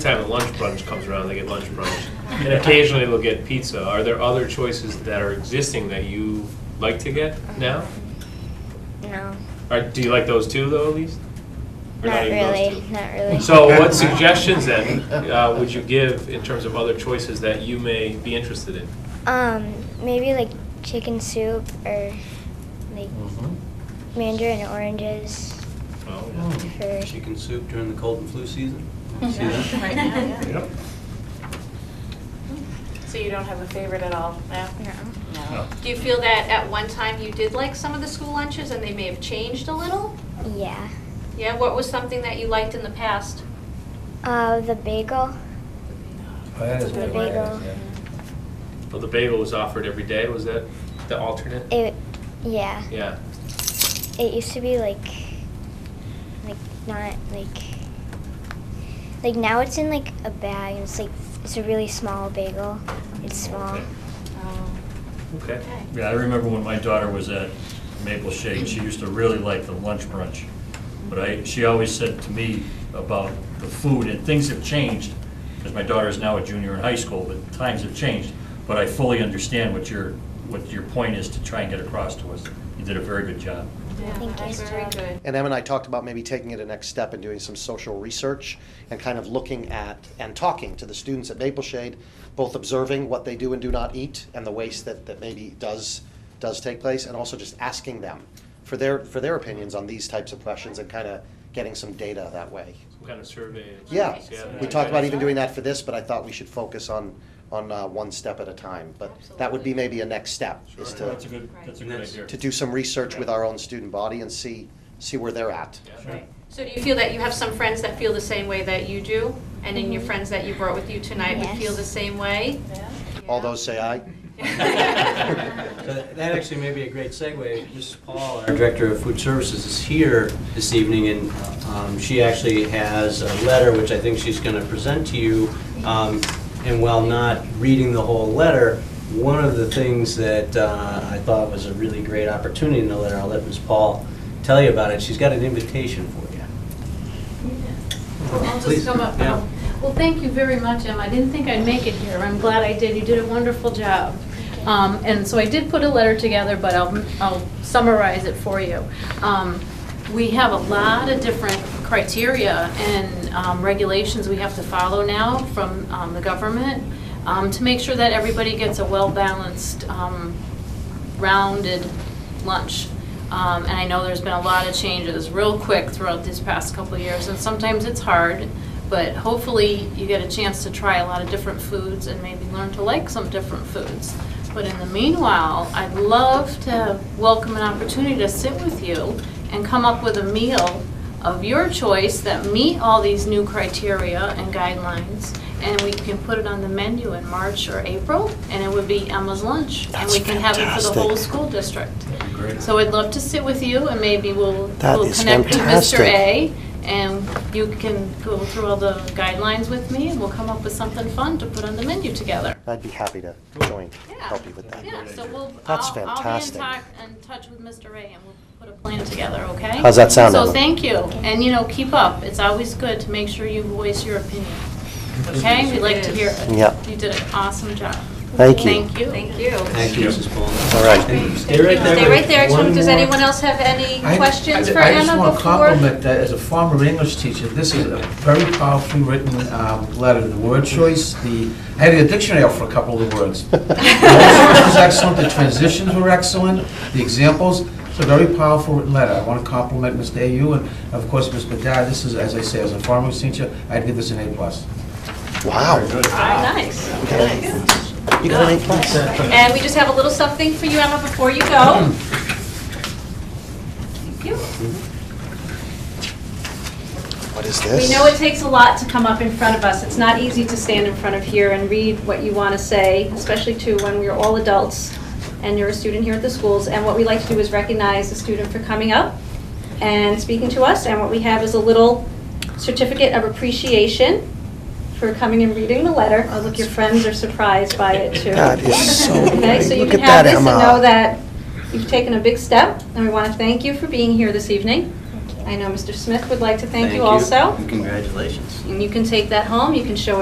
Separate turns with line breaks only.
Time that lunch brunch comes around, they get lunch brunch, and occasionally they'll get pizza. Are there other choices that are existing that you like to get now?
No,
Or do you like those too, though, at least? Or
not
even those
really,
two?
not really.
So, what suggestions then uh, would you give in terms of other choices that you may be interested in?
um, maybe like chicken soup or like mandarin oranges
Oh, yeah.
for
Chicken soup during the cold and flu season? See that?
Right now, yeah.
Yep.
So you don't have a favorite at all now?
no.
No.
Do you feel that at one time you did like some of the school lunches and they may have changed a little?
Yeah.
Yeah, what was something that you liked in the past?
Uh, the bagel.
Oh, that is
The
what it
bagel.
is, yeah.
Well, the bagel was offered every day. Was that the alternate?
It, yeah.
Yeah.
It used to be like, like not like, like now it's in like a bag. And it's like it's a really small bagel. It's small.
Okay.
Oh,
Okay.
Yeah, I remember when my daughter was at Maple Shade, she used to really like the lunch brunch. But I, she always said to me about the food, and things have changed, because my daughter is now a junior in high school, but times have changed. But I fully understand what your, what your point is to try and get across to us. You did a very good job.
Thank
That's
you.
very good.
And Em and I talked about maybe taking it a next step and doing some social research and kind of looking at and talking to the students at Maple Shade, both observing what they do and do not eat and the waste that, that maybe does, does take place, and also just asking them for their, for their opinions on these types of questions and kind of getting some data that way.
Some kind of survey. and
Yeah,
things, yeah.
we talked about even doing that for this, but I thought we should focus on, on uh, one step at a time. But that would be maybe a next step, is
So That's a
to,
good, that's a good idea.
to do some research with our own student body and see, see where they're at.
Yeah.
Sure.
So do you feel that you have some friends that feel the same way that you do? And then your friends that you brought with you tonight would
Mm-hmm. Yes.
feel the same way?
All those say aye.
So That actually may be a great segue. Ms. Paul, our Director of Food Services, is here this evening, and um, she actually has a letter, which I think she's going to present to you. Um, And while not reading the whole letter, one of the things that uh, I thought was a really great opportunity in the letter, I'll let Ms. Paul tell you about it. She's got an invitation for you.
Well, I'll
Please,
just come up.
yeah.
Well, thank you very much, Em. I didn't think I'd make it here. I'm glad I did. You did a wonderful job. Um, And so I did put a letter together, but I'll I'll summarize it for you. Um, We have a lot of different criteria and um, regulations we have to follow now from um, the government um, to make sure that everybody gets a well-balanced um, rounded lunch. Um, and I know there's been a lot of changes real quick throughout these past couple of years, and sometimes it's hard, but hopefully you get a chance to try a lot of different foods and maybe learn to like some different foods. But in the meanwhile, I'd love to welcome an opportunity to sit with you and come up with a meal of your choice that meet all these new criteria and guidelines, and we can put it on the menu in March or April, and it would be Emma's Lunch. And we can have it for the whole school district.
That'd be great.
So I'd love to sit with you, and maybe we'll,
That
we'll
is
connect to Mr.
fantastic.
A, and you can go through all the guidelines with me, and we'll come up with something fun to put on the menu together.
I'd be happy to join, help you with that.
Yeah, so we'll,
That's
I'll, I'll be in
fantastic.
touch, in touch with Mr. Ray and we'll put a plan together, okay?
How's that sound,
So
Ellen?
thank you, and you know, keep up, it's always good to make sure you voice your opinion, okay? We like to hear it.
Yep.
You did an awesome job.
Thank you.
Thank you.
Thank you.
Thank you, Mrs. Paul.
All right.
Stay right there.
Stay
with
right there.
one
Does
more-
anyone else have any
I-
questions
I-
for
I just
Emma
want to
before?
compliment that as a former English teacher, this is a very powerfully written um, letter. The word choice, the, I had a dictionary out for a couple of the words. The word choice was excellent, the transitions were excellent, the examples, it's a very powerful written letter. I want to compliment Mr. AU and of course, Ms. Badar. This is, as I say, as a former English teacher, I'd give this an A plus.
Wow.
Ah, Nice.
You got an A plus.
And we just have a little something for you, Emma, before you
Mm.
go. Thank you.
What is
We
this?
know it takes a lot to come up in front of us. It's not easy to stand in front of here and read what you want to say, especially to when we're all adults and you're a student here at the schools. And what we like to do is recognize the student for coming up and speaking to us. And what we have is a little certificate of appreciation for coming and reading the letter. I hope your friends are surprised by it too.
That is so
Okay,
great.
so you
Look at
can have
that,
this and
Emma.
know that you've taken a big step, and we want to thank you for being here this evening.
I know Mr. Smith would like to thank
Thank
you also.
Congratulations.
And you can take that home, you can show